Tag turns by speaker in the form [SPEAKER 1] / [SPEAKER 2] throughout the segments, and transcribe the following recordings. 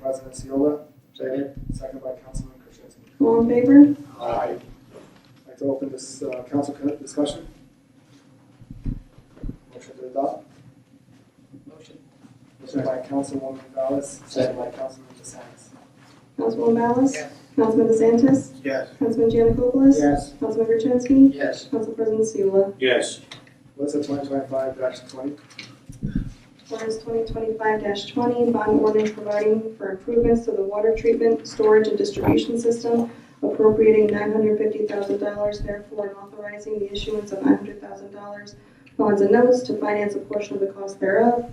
[SPEAKER 1] President Seola. Second. Second by Councilman Krasinski.
[SPEAKER 2] All in favor?
[SPEAKER 1] Aye. I'd like to open this uh, council co- discussion. Motion to adopt.
[SPEAKER 3] Motion.
[SPEAKER 1] Motion by Councilwoman Ballas, second by Councilman DeSantis.
[SPEAKER 2] Councilwoman Ballas?
[SPEAKER 3] Yes.
[SPEAKER 2] Councilman DeSantis?
[SPEAKER 4] Yes.
[SPEAKER 2] Councilman Janikopoulos?
[SPEAKER 1] Yes.
[SPEAKER 2] Councilman Gertenski?
[SPEAKER 3] Yes.
[SPEAKER 2] Council President Seula?
[SPEAKER 4] Yes.
[SPEAKER 1] What's the twenty twenty-five twenty?
[SPEAKER 2] Ordinance 2025-20, bond ordinance providing for improvements to the water treatment, storage, and distribution system, appropriating $950,000, therefore, and authorizing the issuance of $900,000 bonds and notes to finance a portion of the cost thereof,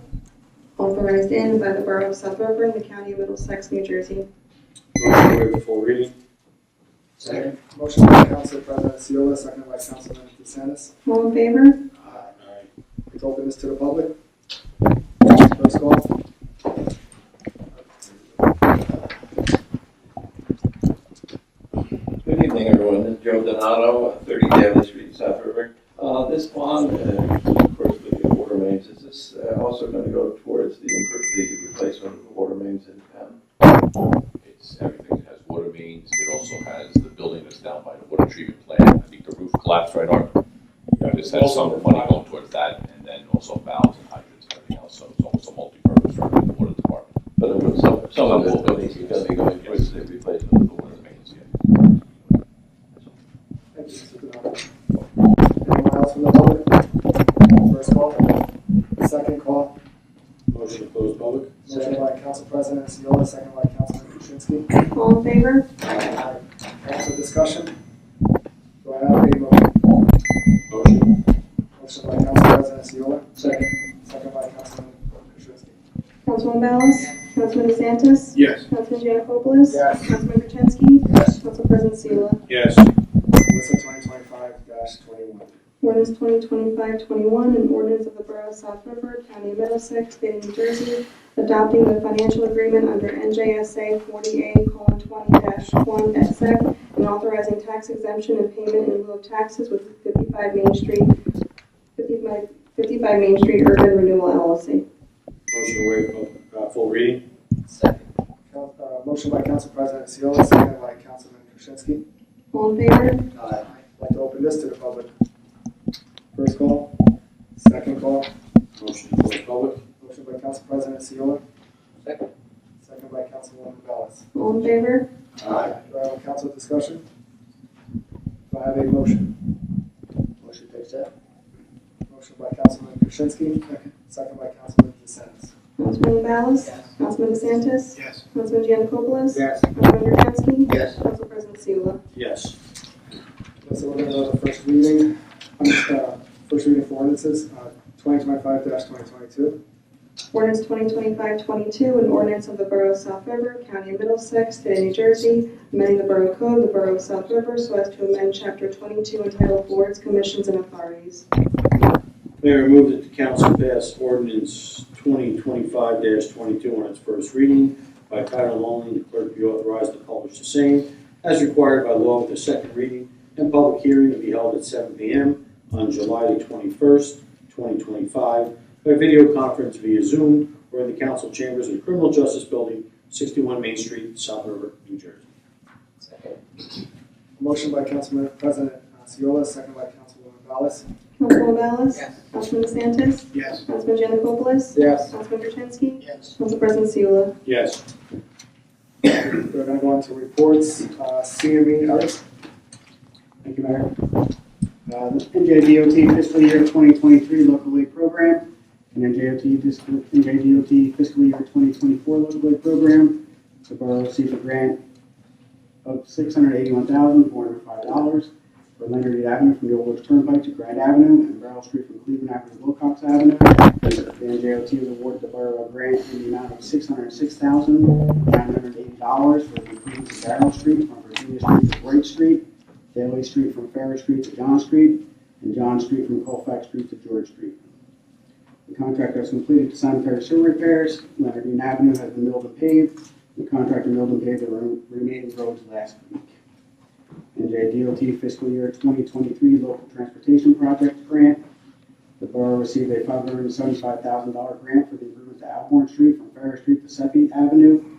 [SPEAKER 2] authorized in by the Borough of South River and the County of Middlesex, New Jersey.
[SPEAKER 4] Motion to waive the full reading?
[SPEAKER 3] Second.
[SPEAKER 1] Motion by Council President Seola, second by Councilman DeSantis.
[SPEAKER 2] All in favor?
[SPEAKER 1] Aye.
[SPEAKER 4] Aye.
[SPEAKER 1] Let's open this to the public. First call.
[SPEAKER 5] Good evening, everyone. This is Joe Donato, 30 Davis Street, South River. Uh, This bond, uh, of course, with the water mains, is this uh, also going to go towards the impro- the replacement of the water mains in town?
[SPEAKER 6] It's, everything has water mains, it also has the building that's down by the water treatment plant, I think the roof collapsed right on. This has some money going towards that, and then also valves and hydrants and everything else, so it's almost a multi-purpose for the water department.
[SPEAKER 5] But it would- some some of those buildings are going to be going towards the replacement of the water mains.
[SPEAKER 1] Thank you, Mr. Donato. Anyone else from the public? First call. Second call.
[SPEAKER 4] Motion to close public?
[SPEAKER 1] Motion by Council President Seola, second by Councilman Krasinski.
[SPEAKER 2] All in favor?
[SPEAKER 1] Aye. Council discussion. Do I have a motion?
[SPEAKER 4] Motion.
[SPEAKER 1] Motion by Council President Seola,
[SPEAKER 4] Second.
[SPEAKER 1] second by Councilman Krasinski.
[SPEAKER 2] Councilman Ballas? Councilman DeSantis?
[SPEAKER 4] Yes.
[SPEAKER 2] Councilman Janikopoulos?
[SPEAKER 1] Yes.
[SPEAKER 2] Councilman Gertenski?
[SPEAKER 4] Yes.
[SPEAKER 2] Council President Seula?
[SPEAKER 4] Yes.
[SPEAKER 1] Listen, twenty twenty-five twenty-one.
[SPEAKER 2] Ordinance 2025-21, an ordinance of the Borough of South River, County of Middlesex, State of New Jersey, adopting the financial agreement under NJSA 40A:20-1 et sec, and authorizing tax exemption and payment in lieu of taxes with 55 Main Street, 55 55 Main Street Urban Renewal LLC.
[SPEAKER 4] Motion to waive pub- uh, full reading?
[SPEAKER 3] Second.
[SPEAKER 1] Coun- uh, Motion by Council President Seola, second by Councilman Krasinski.
[SPEAKER 2] All in favor?
[SPEAKER 1] I'd like to open this to the public. First call, second call.
[SPEAKER 4] Motion to close public?
[SPEAKER 1] Motion by Council President Seola.
[SPEAKER 3] Second.
[SPEAKER 1] Second by Councilwoman Ballas.
[SPEAKER 2] All in favor?
[SPEAKER 1] Do I have a council discussion? Do I have a motion?
[SPEAKER 3] Motion to accept.
[SPEAKER 1] Motion by Councilman Krasinski, second by Councilman DeSantis.
[SPEAKER 2] Councilman Ballas?
[SPEAKER 3] Yes.
[SPEAKER 2] Councilman DeSantis?
[SPEAKER 4] Yes.
[SPEAKER 2] Councilman Janikopoulos?
[SPEAKER 1] Yes.
[SPEAKER 2] Councilman Gertenski?
[SPEAKER 3] Yes.
[SPEAKER 2] Council President Seula?
[SPEAKER 4] Yes.
[SPEAKER 1] Okay, So we're going to go to the first reading, uh, first reading for ordinances, uh, twenty twenty-five twenty twenty-two.
[SPEAKER 2] Ordinance 2025-22, an ordinance of the Borough of South River, County of Middlesex, State of New Jersey, amending the Borough Code, of the Borough of South River, so as to amend Chapter 22 entitled Boards, Commissions, and Authorities.
[SPEAKER 4] Mayor, move that the council pass ordinance twenty twenty-five twenty-two on its first reading by title only, and the clerk be authorized to publish the same as required by law with a second reading and public hearing to be held at seven P M on July the twenty-first, twenty twenty-five, by video conference via Zoom or in the council chambers of the Criminal Justice Building, sixty-one Main Street, South River, New Jersey.
[SPEAKER 3] Second.
[SPEAKER 1] Motion by Councilman President uh, Seola, second by Councilwoman Ballas.
[SPEAKER 2] Councilman Ballas?
[SPEAKER 3] Yes.
[SPEAKER 2] Councilman DeSantis?
[SPEAKER 4] Yes.
[SPEAKER 2] Councilman Janikopoulos?
[SPEAKER 1] Yes.
[SPEAKER 2] Councilman Gertenski?
[SPEAKER 3] Yes.
[SPEAKER 2] Council President Seula?
[SPEAKER 4] Yes.
[SPEAKER 1] We're going to go on to reports, Uh, CME, Eric.
[SPEAKER 7] Thank you, Mayor. Uh, The NJDOT fiscal year 2023 local aid program and NJDOT fiscal, NJDOT fiscal year 2024 local aid program. The borough received a grant of $681,405 for Leonard Avenue from the Old Woods Turnpike to Grand Avenue and Barrel Street from Cleveland Avenue to Wilcox Avenue. The NJDOT was awarded the borough a grant in the amount of $606,980 for the improvements to Barrel Street from Virginia Street to Bright Street Daley Street from Ferris Street to John Street, and John Street from Colfax Street to George Street. The contractor has completed sanitary sewer repairs, Leonard Dean Avenue has been milled and paved, the contractor milled and paved the re- remaining roads last week. NJDOT fiscal year 2023 local transportation project grant, the borough received a $575,000 grant for the improvement to Alborn Street from Ferris Street to Seppi Avenue,